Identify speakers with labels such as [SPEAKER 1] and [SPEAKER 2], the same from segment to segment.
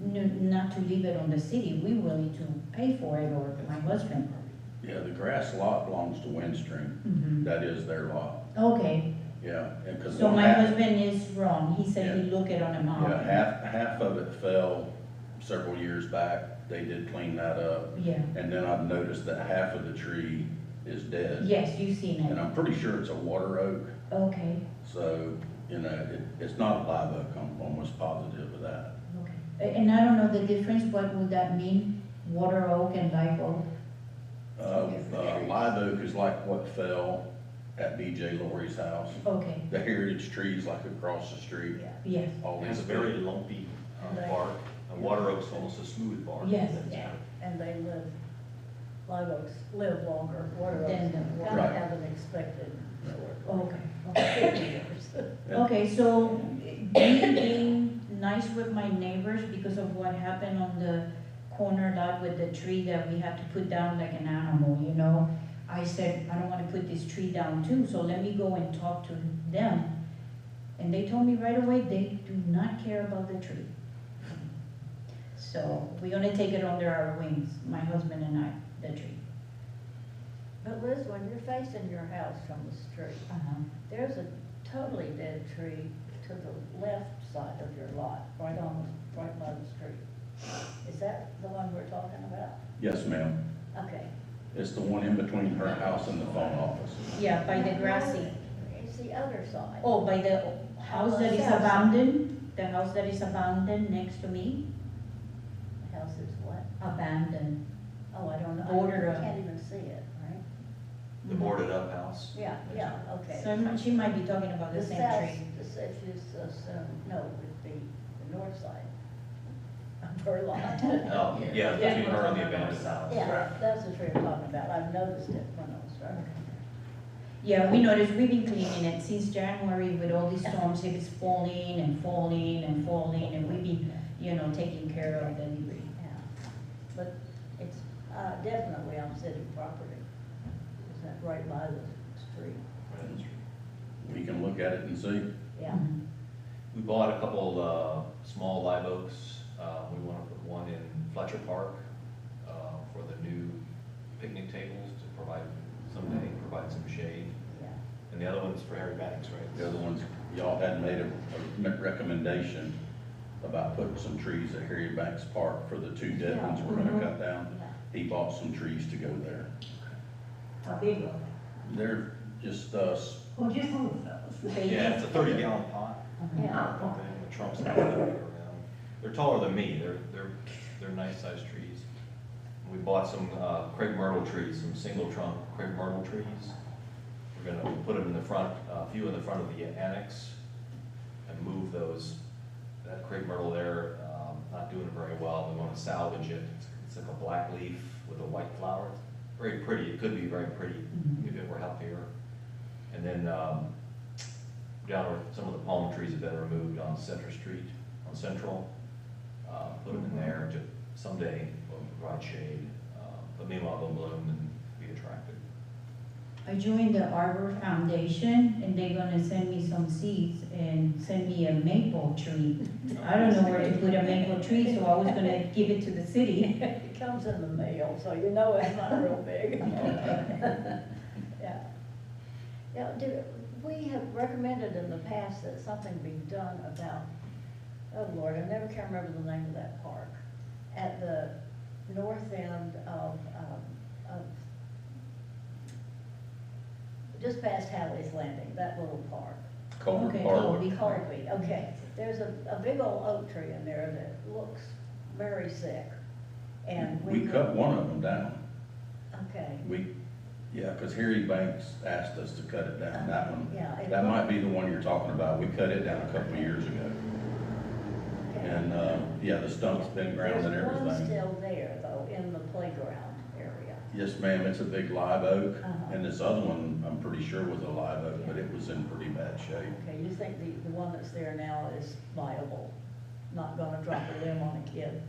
[SPEAKER 1] not to leave it on the city, we willing to pay for it or my husband.
[SPEAKER 2] Yeah, the grass lot belongs to Windstream.
[SPEAKER 1] Mhm.
[SPEAKER 2] That is their lot,
[SPEAKER 1] Okay,
[SPEAKER 2] yeah. And 'cause
[SPEAKER 1] so
[SPEAKER 2] one
[SPEAKER 1] my
[SPEAKER 2] half-
[SPEAKER 1] husband is wrong, he said he looked it on a
[SPEAKER 2] Yeah,
[SPEAKER 1] map.
[SPEAKER 2] half, half of it fell several years back. They did clean that up.
[SPEAKER 1] Yeah,
[SPEAKER 2] And then I've noticed that half of the tree is dead.
[SPEAKER 1] yes, you seen
[SPEAKER 2] And
[SPEAKER 1] it,
[SPEAKER 2] I'm pretty sure it's a water oak,
[SPEAKER 1] okay,
[SPEAKER 2] so, you know, it, it's not a live oak, I'm almost positive of that.
[SPEAKER 1] okay. A- And I don't know the difference, what would that mean, water oak and live oak?
[SPEAKER 2] Uh, uh, live oak is like what fell at BJ Laurie's house.
[SPEAKER 1] Okay,
[SPEAKER 2] The heritage trees like across the street,
[SPEAKER 1] yes,
[SPEAKER 2] all
[SPEAKER 3] It's
[SPEAKER 2] these.
[SPEAKER 3] Oh, a very lumpy uh,
[SPEAKER 4] Right.
[SPEAKER 3] bark, and water oak's almost a smooth bark.
[SPEAKER 1] Yes,
[SPEAKER 3] That's
[SPEAKER 1] yeah.
[SPEAKER 3] kind
[SPEAKER 4] and they live, live oaks live longer, water
[SPEAKER 1] Than
[SPEAKER 4] oaks
[SPEAKER 1] the
[SPEAKER 4] kind
[SPEAKER 2] Right.
[SPEAKER 4] of have an expected sort
[SPEAKER 1] okay, okay.
[SPEAKER 4] of fifty years.
[SPEAKER 2] Yeah.
[SPEAKER 1] Okay, so me being nice with my neighbors because of what happened on the corner lot with the tree that we had to put down like an animal, you know? I said, I don't wanna put this tree down too, so let me go and talk to them. And they told me right away, they do not care about the tree. So we're gonna take it under our wings, my husband and I, the tree.
[SPEAKER 4] But Liz, when you're facing your house from the street,
[SPEAKER 1] Uh-huh.
[SPEAKER 4] there's a totally dead tree to the left side of your lot, right on, the right by the street. Is that the one we're talking about?
[SPEAKER 2] Yes, ma'am.
[SPEAKER 4] Okay.
[SPEAKER 2] It's the one in between her house and the phone office.
[SPEAKER 1] Yeah, by the grassy,
[SPEAKER 4] It's the other side.
[SPEAKER 1] oh, by the house that is abandoned, the house that is abandoned next to me.
[SPEAKER 4] The House is what?
[SPEAKER 1] abandoned.
[SPEAKER 4] Oh, I don't know. I
[SPEAKER 1] Border of-
[SPEAKER 4] Can't even see it, right?
[SPEAKER 3] of- The boarded up house.
[SPEAKER 4] Yeah, yeah, okay.
[SPEAKER 1] So I'm- she might be talking about the
[SPEAKER 4] The
[SPEAKER 1] same
[SPEAKER 4] south,
[SPEAKER 1] tree.
[SPEAKER 4] the south is, uh, so- no, it would be the north side of her lot.
[SPEAKER 3] Oh,
[SPEAKER 1] Yeah.
[SPEAKER 3] yeah, between her and the abandoned house.
[SPEAKER 4] Yeah, that's the tree I'm talking about, I've noticed it when I was driving.
[SPEAKER 1] Yeah, we noticed, we've been cleaning it since January with all these storms, it is falling and falling and falling, and we've been, you know, taking care of the debris.
[SPEAKER 4] Yeah, But it's, uh, definitely on city property, is that right by the street?
[SPEAKER 2] We can look at it and see.
[SPEAKER 4] Yeah,
[SPEAKER 3] We bought a couple, uh, small live oaks, uh, we wanna put one in Fletcher Park, uh, for the new picnic tables to provide, someday provide some shade,
[SPEAKER 4] yeah.
[SPEAKER 3] and the other one's for Harry Banks, right?
[SPEAKER 2] The other ones, y'all had made a, a recommendation about putting some trees at Harry Banks Park for the two dead ones we're gonna cut down.
[SPEAKER 4] Yeah. mm-hmm.
[SPEAKER 2] He bought some trees to go there.
[SPEAKER 5] How big are
[SPEAKER 2] They're just, uh, s-
[SPEAKER 5] they? Oh, just little fellas.
[SPEAKER 3] Yeah, it's a thirty gallon pot.
[SPEAKER 1] Mm-hmm.
[SPEAKER 4] Yeah,
[SPEAKER 3] Okay, the trunks are all the way around. They're taller than me, they're, they're, they're nice sized trees. We bought some uh, crepe myrtle trees, some single trunk crepe myrtle trees. We're gonna put them in the front, uh, a few in the front of the annex and move those. That crepe myrtle there, um, not doing very well, we wanna salvage it. It's like a black leaf with a white flower, It's very pretty, it could be very pretty if it were healthier. And then, um, down where some of the palm trees have been removed on Center Street, on Central. Uh, put them in there to someday will provide shade, uh, but meanwhile they'll bloom and be attractive.
[SPEAKER 1] I joined the Arbor Foundation, and they're gonna send me some seeds and send me a maple tree. I don't know where to put a maple tree, so I was gonna give it to the city.
[SPEAKER 4] it comes in the mail, so you know it's not real big. Yeah. Now, do, we have recommended in the past that something be done about, oh Lord, I never can remember the name of that park. At the north end of, um, of, just past Hadley's Landing, that little park.
[SPEAKER 2] Culver
[SPEAKER 1] Okay.
[SPEAKER 2] Park.
[SPEAKER 1] Big park.
[SPEAKER 4] Colby, okay. There's a, a big old oak tree in there that looks very sick. And we.
[SPEAKER 2] We cut one of them down.
[SPEAKER 4] Okay.
[SPEAKER 2] We, yeah, because Harry Banks asked us to cut it down, that one.
[SPEAKER 4] Yeah. it-
[SPEAKER 2] That might be the one you're talking about. We cut it down a couple of years ago.
[SPEAKER 4] okay.
[SPEAKER 2] And, uh, yeah, the stump's been ground and
[SPEAKER 4] There's one
[SPEAKER 2] everything.
[SPEAKER 4] still there, though, in the playground area.
[SPEAKER 2] Yes, ma'am, it's a big live oak.
[SPEAKER 4] Uh-huh.
[SPEAKER 2] And this other one, I'm pretty sure was a live oak, but it was in pretty bad shape.
[SPEAKER 4] Okay, you think the, the one that's there now is viable, not gonna drop a limb on a kid?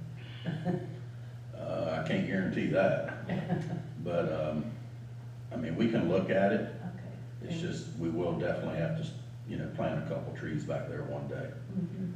[SPEAKER 2] Uh, I can't guarantee that, but, um, I mean, we can look at it.
[SPEAKER 4] Okay.
[SPEAKER 2] It's just, we will definitely have to, you know, plant a couple trees back there one day.
[SPEAKER 4] Mhm.